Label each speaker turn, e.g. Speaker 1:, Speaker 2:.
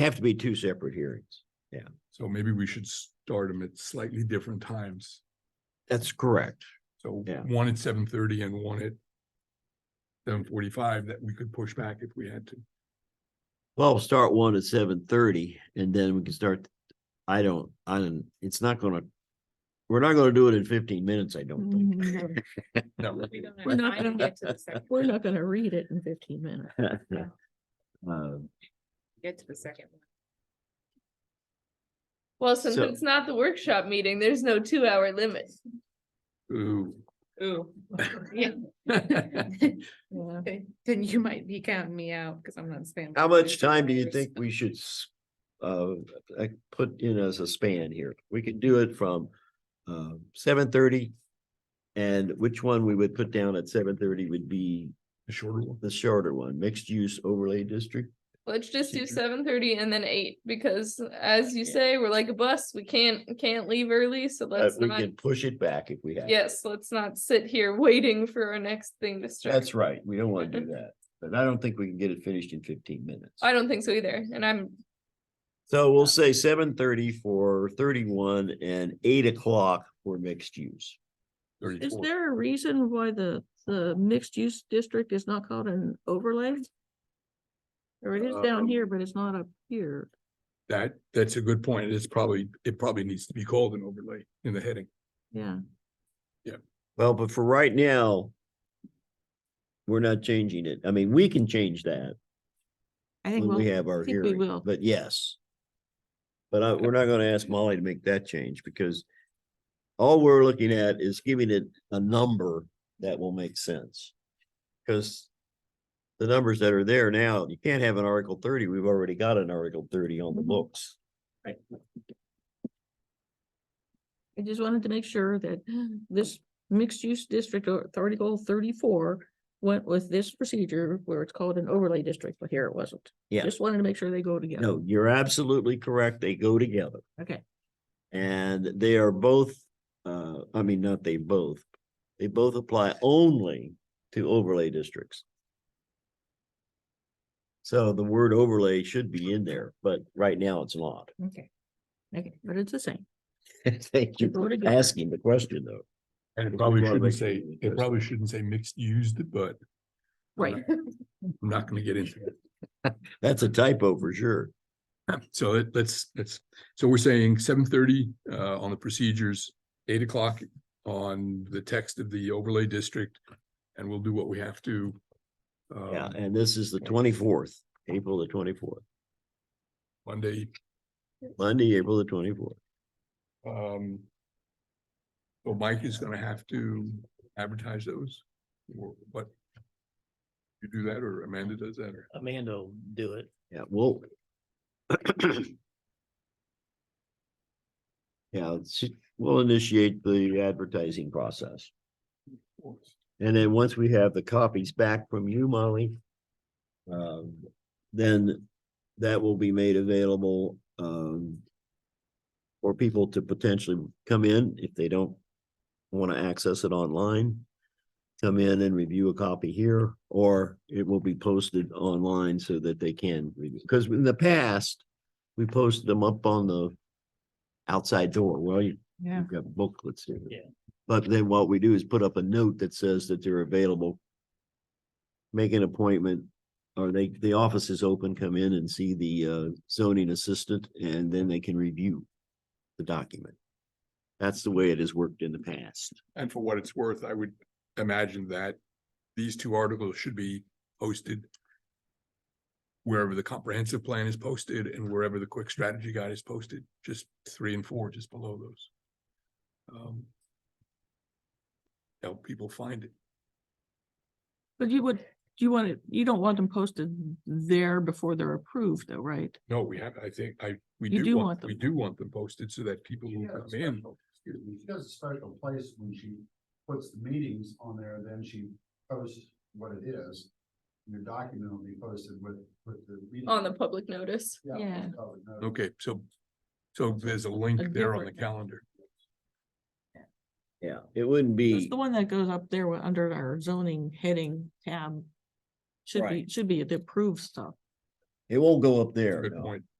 Speaker 1: Have to be two separate hearings.
Speaker 2: So maybe we should start them at slightly different times.
Speaker 1: That's correct.
Speaker 2: So
Speaker 1: Yeah.
Speaker 2: one at seven thirty and one at seven forty-five that we could push back if we had to.
Speaker 1: Well, we'll start one at seven thirty and then we can start. I don't, I don't, it's not gonna, we're not gonna do it in fifteen minutes, I don't think.
Speaker 2: No,
Speaker 3: No,
Speaker 4: Mm-hmm.
Speaker 5: We don't
Speaker 3: Mm-hmm. We're
Speaker 5: have
Speaker 3: not
Speaker 5: time to
Speaker 3: gonna-
Speaker 5: get to the second.
Speaker 3: We're not gonna read it in fifteen minutes.
Speaker 1: Um,
Speaker 5: Get to the second one.
Speaker 4: Well, since
Speaker 1: So-
Speaker 4: it's not the workshop meeting, there's no two hour limit.
Speaker 2: ooh.
Speaker 5: Ooh. Yeah,
Speaker 3: Yeah.
Speaker 5: okay. then you might be counting me out because I'm not staying.
Speaker 1: How
Speaker 5: for
Speaker 1: much
Speaker 5: two
Speaker 1: time do you
Speaker 5: hours.
Speaker 1: think we should s- uh, uh, put in as a span here? We could do it from uh, seven thirty. And which one we would put down at seven thirty would be
Speaker 2: A shorter one.
Speaker 1: the shorter one, mixed use overlay district?
Speaker 4: Let's just do
Speaker 2: Teacher.
Speaker 4: seven thirty and then eight, because as you say, we're like a bus, we can't, can't leave early, so
Speaker 1: But
Speaker 4: let's
Speaker 1: we
Speaker 4: not.
Speaker 1: can push it back if we have. to.
Speaker 4: Yes, let's not sit here waiting for our next thing to start.
Speaker 1: That's right. We don't want to do that, but I don't think we can get it finished in fifteen minutes.
Speaker 4: I don't think so either, and I'm,
Speaker 1: So we'll say seven thirty for thirty-one and eight o'clock for mixed use.
Speaker 3: Is
Speaker 2: 34.
Speaker 3: there a reason why the, the mixed use district is not called an overlay? Or it is
Speaker 1: Uh,
Speaker 3: down
Speaker 2: Um,
Speaker 3: here, but it's not up here.
Speaker 2: That, that's a good point. It's probably, it probably needs to be called an overlay in the heading.
Speaker 3: Yeah.
Speaker 1: Well, but for right now, we're not changing it. I mean, we can change that
Speaker 3: I think
Speaker 1: when we
Speaker 3: we'll,
Speaker 1: have our
Speaker 3: think we
Speaker 1: hearing,
Speaker 3: will.
Speaker 1: but yes. But I, we're not gonna ask Molly to make that change because all we're looking at is giving it a number that will make sense. Cause the numbers that are there now, you can't have an Article thirty. We've already got an Article thirty on the
Speaker 3: Mhm.
Speaker 1: books.
Speaker 3: I just wanted to make sure that this mixed use district or article thirty-four went with this procedure where it's called an overlay district, but here it wasn't.
Speaker 1: Yeah.
Speaker 3: Just wanted to make sure they go together.
Speaker 1: No, you're absolutely correct. They go together.
Speaker 3: Okay,
Speaker 1: And they are both, uh, I mean, not they both, they both apply only to overlay districts. So the word overlay should be in there, but right now it's not.
Speaker 3: okay. Okay, but it's the same.
Speaker 1: Thank you
Speaker 3: Go
Speaker 1: for
Speaker 3: together.
Speaker 1: asking the question though.
Speaker 2: And it probably
Speaker 1: We wanna make
Speaker 2: shouldn't say,
Speaker 1: it
Speaker 2: it probably shouldn't say mixed used, but
Speaker 3: Right.
Speaker 2: I'm not gonna get into it.
Speaker 1: That's a typo for sure.
Speaker 2: So it- let's, let's, so we're saying seven thirty uh on the procedures, eight o'clock on the text of the overlay district. And we'll do what we have to.
Speaker 1: Yeah,
Speaker 2: um,
Speaker 1: and this is the twenty-fourth, April the twenty-fourth,
Speaker 2: Monday,
Speaker 1: Monday, April the twenty-fourth.
Speaker 2: um. So Mike is gonna have to advertise those, or what? You do that or Amanda does that or?
Speaker 6: Amanda will do it.
Speaker 1: Yeah, well. Yeah, she- we'll initiate the advertising process. And then once we have the copies back from you, Molly, um, then that will be made available, um, for people to potentially come in if they don't want to access it online. Come in and review a copy here, or it will be posted online so that they can review. Because in the past, we posted them up on the outside door. Well, you-
Speaker 5: Yeah.
Speaker 1: you've got booklets here.
Speaker 6: Yeah.
Speaker 1: But then what we do is put up a note that says that they're available. Make an appointment, or they, the office is open, come in and see the uh, zoning assistant, and then they can review the document. That's the way it has worked in the past.
Speaker 2: And for what it's worth, I would imagine that these two articles should be posted wherever the comprehensive plan is posted and wherever the quick strategy guide is posted, just three and four, just below those. Um, Help people find it.
Speaker 3: But you would, you want it, you don't want them posted there before they're approved though, right?
Speaker 2: No, we have, I think, I, we
Speaker 3: You
Speaker 2: do
Speaker 3: do
Speaker 2: want,
Speaker 3: want
Speaker 2: we
Speaker 3: them.
Speaker 2: do want them posted so that people who
Speaker 7: She
Speaker 2: come
Speaker 7: has a
Speaker 2: in.
Speaker 7: special- Excuse me, she has a special place when she puts the meetings on there, then she posts what it is. and Your document will be posted with, with the. meeting.
Speaker 4: on the public notice.
Speaker 3: Yeah.
Speaker 7: it's public notice.
Speaker 2: Okay, so, so there's a link
Speaker 3: A
Speaker 2: there on the
Speaker 3: different-
Speaker 2: calendar.
Speaker 1: Yeah. It wouldn't
Speaker 3: It's
Speaker 1: be,
Speaker 3: the one that goes up there wa- under our zoning heading tab. Should be,
Speaker 1: Right.
Speaker 3: should be the approved stuff.
Speaker 1: it won't go up there.
Speaker 2: Good
Speaker 1: no.
Speaker 2: point.